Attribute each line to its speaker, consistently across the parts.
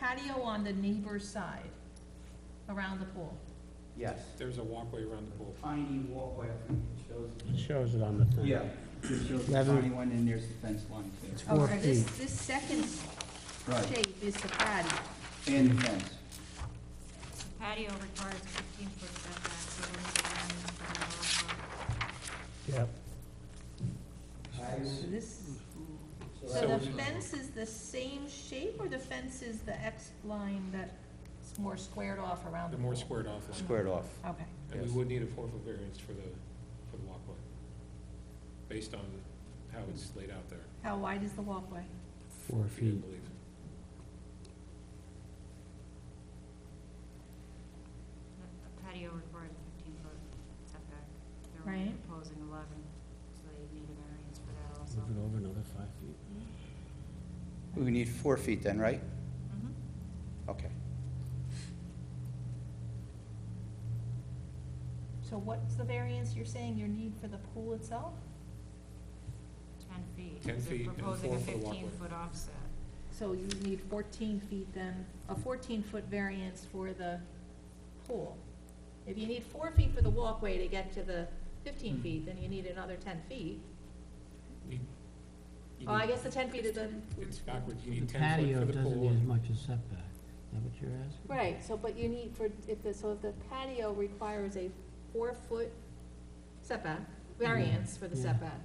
Speaker 1: patio on the neighbor's side, around the pool?
Speaker 2: Yes,
Speaker 3: There's a walkway around the pool.
Speaker 2: tiny walkway, I think it shows.
Speaker 4: It shows it on the thing.
Speaker 2: Yeah, it shows the
Speaker 4: Eleven.
Speaker 2: tiny one, and there's the fence line too.
Speaker 4: Four
Speaker 1: Okay, this,
Speaker 4: feet.
Speaker 1: this second
Speaker 2: Right,
Speaker 1: shape is the patio.
Speaker 2: and the fence.
Speaker 5: Patio requires fifteen foot setback, so we're gonna
Speaker 4: Yep.
Speaker 1: So This, so
Speaker 3: So-
Speaker 1: the fence is the same shape, or the fence is the X line that's more squared off around the
Speaker 3: The
Speaker 1: pool?
Speaker 3: more squared off line.
Speaker 2: Squared off.
Speaker 1: Okay,
Speaker 3: And we
Speaker 2: Yes.
Speaker 3: would need a four-foot variance for the, for the walkway, based on how it's laid out there,
Speaker 1: how wide is the walkway?
Speaker 4: Four
Speaker 3: if you
Speaker 4: feet.
Speaker 3: believe.
Speaker 5: a patio requires fifteen foot setback. They're only
Speaker 1: Right.
Speaker 5: proposing eleven, so they need a variance for that also.
Speaker 4: Move it over another five feet.
Speaker 2: We need four feet then, right?
Speaker 5: Mhm.
Speaker 2: Okay.
Speaker 1: So what's the variance you're saying your need for the pool itself?
Speaker 5: Ten feet.
Speaker 3: 10 feet and
Speaker 5: They're proposing
Speaker 3: four
Speaker 5: a
Speaker 3: for the walkway.
Speaker 5: fifteen foot offset.
Speaker 1: So you need fourteen feet then, a fourteen-foot variance for the pool. If you need four feet for the walkway to get to the
Speaker 3: Hmm.
Speaker 1: fifteen feet, then you need another ten feet.
Speaker 3: You- you
Speaker 1: Oh, I
Speaker 3: need-
Speaker 1: guess the ten feet is the,
Speaker 3: It's backwards, you
Speaker 4: The
Speaker 3: need ten
Speaker 4: patio
Speaker 3: foot for the
Speaker 4: doesn't
Speaker 3: pool.
Speaker 4: need as much as setback. Is that what you're asking?
Speaker 1: right, so, but you need for, if the, so if the patio requires a four-foot setback, variance for the
Speaker 4: Yeah.
Speaker 1: setback.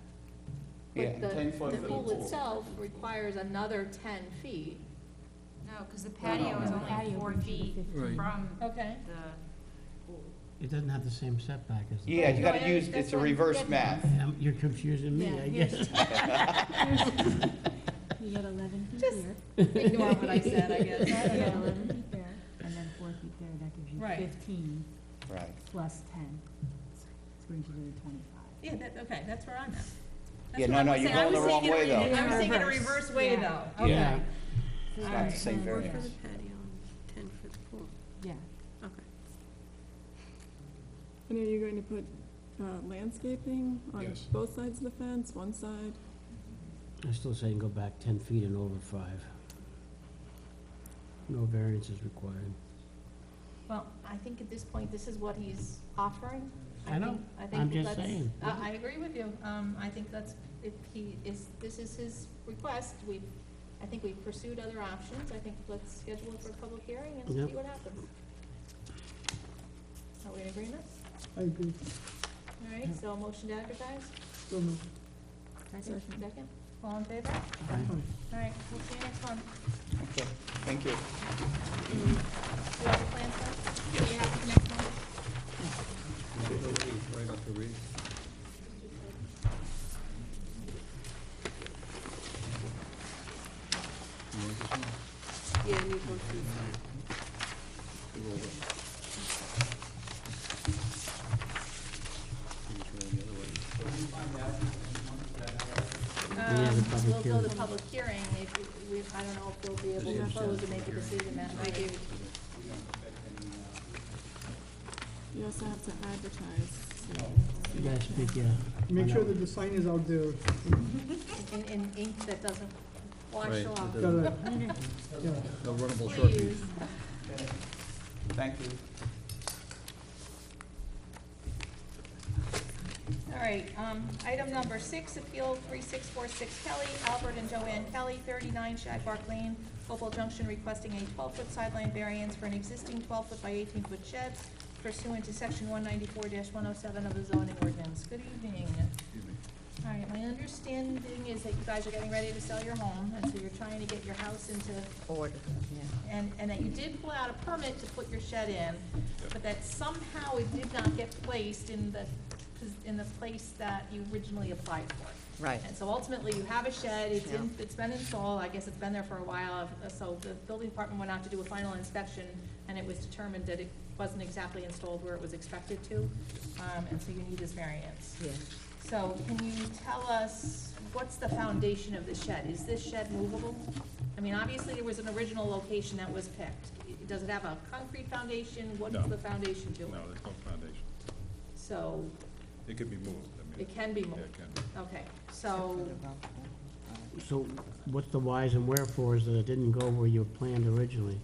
Speaker 2: Yeah,
Speaker 1: But
Speaker 2: and
Speaker 1: the,
Speaker 2: 10 foot
Speaker 1: the
Speaker 2: for the
Speaker 1: pool
Speaker 2: pool.
Speaker 1: itself requires another ten feet.
Speaker 5: No, because the
Speaker 2: no,
Speaker 5: patio is
Speaker 2: no.
Speaker 5: only four feet from
Speaker 1: Okay.
Speaker 5: the pool.
Speaker 4: It doesn't have the same setback as the.
Speaker 2: Yeah, you
Speaker 1: No,
Speaker 2: gotta
Speaker 1: I-
Speaker 2: use,
Speaker 1: that's
Speaker 2: it's a
Speaker 1: what I'm
Speaker 2: reverse
Speaker 1: getting at.
Speaker 2: math.
Speaker 4: Um, You're confusing me,
Speaker 1: Yeah,
Speaker 4: I guess.
Speaker 6: You got eleven feet
Speaker 1: Just-
Speaker 6: here,
Speaker 1: Ignore what I said, I guess, I
Speaker 6: you
Speaker 1: don't
Speaker 6: got
Speaker 1: know.
Speaker 6: eleven feet there, and then four feet there, that gives you
Speaker 1: Right.
Speaker 6: fifteen
Speaker 2: Right.
Speaker 6: plus ten. This brings you to the twenty-five.
Speaker 1: Yeah, that, okay, that's where I'm at. That's
Speaker 2: Yeah,
Speaker 1: what
Speaker 2: no,
Speaker 1: I
Speaker 2: no,
Speaker 1: was
Speaker 2: you're
Speaker 1: saying. I
Speaker 2: going the
Speaker 1: was
Speaker 2: wrong
Speaker 1: thinking
Speaker 2: way
Speaker 1: of it-
Speaker 2: though.
Speaker 6: though.
Speaker 1: I was thinking a
Speaker 6: Reverse.
Speaker 1: reverse way though,
Speaker 6: Yeah.
Speaker 2: Yeah.
Speaker 1: okay.
Speaker 2: It's
Speaker 1: All
Speaker 2: not the
Speaker 1: right.
Speaker 2: same
Speaker 7: For the
Speaker 2: variance.
Speaker 7: patio and ten for the pool,
Speaker 6: Yeah.
Speaker 7: okay.
Speaker 8: And are you going to put uh, landscaping on
Speaker 3: Yes.
Speaker 8: both sides of the fence, one side?
Speaker 4: I'm still saying go back ten feet and over five. No variance is required.
Speaker 1: Well, I think at this point, this is what he's offering.
Speaker 4: I know.
Speaker 1: think- I
Speaker 4: I'm
Speaker 1: think
Speaker 4: just
Speaker 1: let's-
Speaker 4: saying.
Speaker 1: I, I agree with you. Um, I think that's, if he is, this is his request, we, I think we've pursued other options. I think let's schedule it for a public hearing and
Speaker 4: Yep.
Speaker 1: see what happens. Are we in agreement?
Speaker 6: I agree.
Speaker 1: All right, so a motion to advertise?
Speaker 8: Second.
Speaker 1: Second? All in favor? All right, we'll see you next month.
Speaker 2: Okay, thank you.
Speaker 1: Do you have the plans done? Are you happy with next month?
Speaker 7: Yeah, you need one for the-
Speaker 4: We have a
Speaker 1: Um,
Speaker 4: public
Speaker 1: We'll go to
Speaker 4: hearing.
Speaker 1: public hearing, if, we, I don't know if we'll be able to close and make a decision that night.
Speaker 8: You also have to advertise, so.
Speaker 4: You guys speak, yeah.
Speaker 9: Make sure that the sign is out there,
Speaker 1: in, in ink that doesn't wash
Speaker 10: Right,
Speaker 1: off.
Speaker 10: it
Speaker 9: gotta, yeah.
Speaker 10: No runnable shortcuts.
Speaker 1: Please,
Speaker 2: Thank you.
Speaker 1: all right, um, item number six, appeal three six four six Kelly, Albert and Joanne Kelly, thirty-nine Shag Park Lane, Hopewell Junction, requesting a twelve-foot sideline variance for an existing twelve-foot by eighteen-foot shed pursuant to section one ninety-four one oh seven of the zoning ordinance. Good evening. All right, my understanding is that you guys are getting ready to sell your home, and so you're trying to get your house into. Order, yeah. And, and that you did pull out a permit to put your shed in, but that somehow it did not get placed in the, in the place that you originally applied for.
Speaker 11: Right.
Speaker 1: And so ultimately, you have a shed, it's in, it's been installed, I guess it's been there for a while, uh, so the building department went out to do a final inspection, and it was determined that it wasn't exactly installed where it was expected to, um, and so you need this variance.
Speaker 11: Yeah,
Speaker 1: So can you tell us, what's the foundation of the shed? Is this shed movable? I mean, obviously, there was an original location that was picked. Does it have a concrete foundation?
Speaker 10: No.
Speaker 1: What's the foundation to it?
Speaker 10: No, there's no foundation.
Speaker 1: So
Speaker 10: It could be moved, I mean.
Speaker 1: it can be moved?
Speaker 10: Yeah, it can be.
Speaker 1: Okay, so,
Speaker 4: So what's the whys and wherefores that it didn't go where you planned originally?